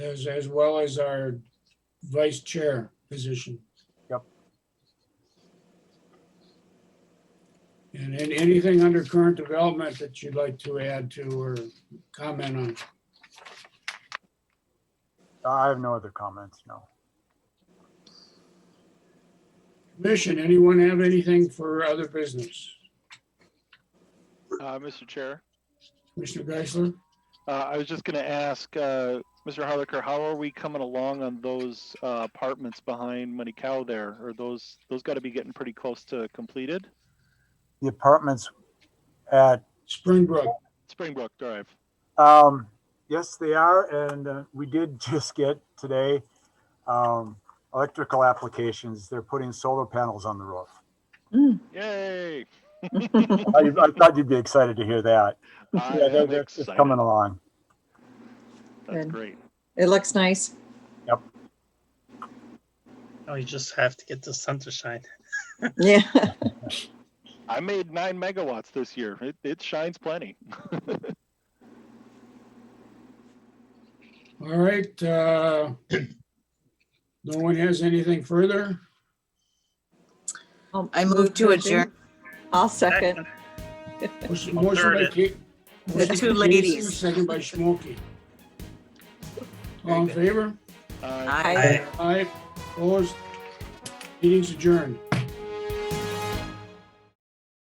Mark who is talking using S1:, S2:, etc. S1: as, as well as our vice chair position.
S2: Yep.
S1: And, and anything under current development that you'd like to add to or comment on?
S2: I have no other comments, no.
S1: Commission, anyone have anything for other business?
S3: Uh, Mr. Chair,
S1: Commissioner Geisler?
S3: uh, I was just gonna ask, uh, Mr. Harlicker, how are we coming along on those, uh, apartments behind Money Cow there? Are those, those gotta be getting pretty close to completed?
S2: The apartments at,
S1: Springbrook,
S3: Springbrook Drive.
S2: um, yes, they are, and uh, we did just get today, um, electrical applications. They're putting solar panels on the roof.
S3: Yay!
S2: I, I thought you'd be excited to hear that.
S3: I
S2: Yeah, they're-
S3: am
S2: they're just
S3: excited.
S2: coming along.
S3: That's
S4: Good.
S3: great.
S4: It looks nice.
S5: Oh, you just have to get the sun to shine.
S4: Yeah.
S3: I made nine megawatts this year. It, it shines plenty.
S1: all right. uh, No one has anything further?
S6: I move to adjourn.
S4: I'll second.
S1: Motion motion by
S5: Third.
S1: Ki- motion by
S6: two
S1: Kiesler,
S6: ladies.
S1: Second by Smoky. All in favor?
S3: Uh,
S6: Aye.
S4: I-
S1: Aye, opposed? Meeting's adjourned.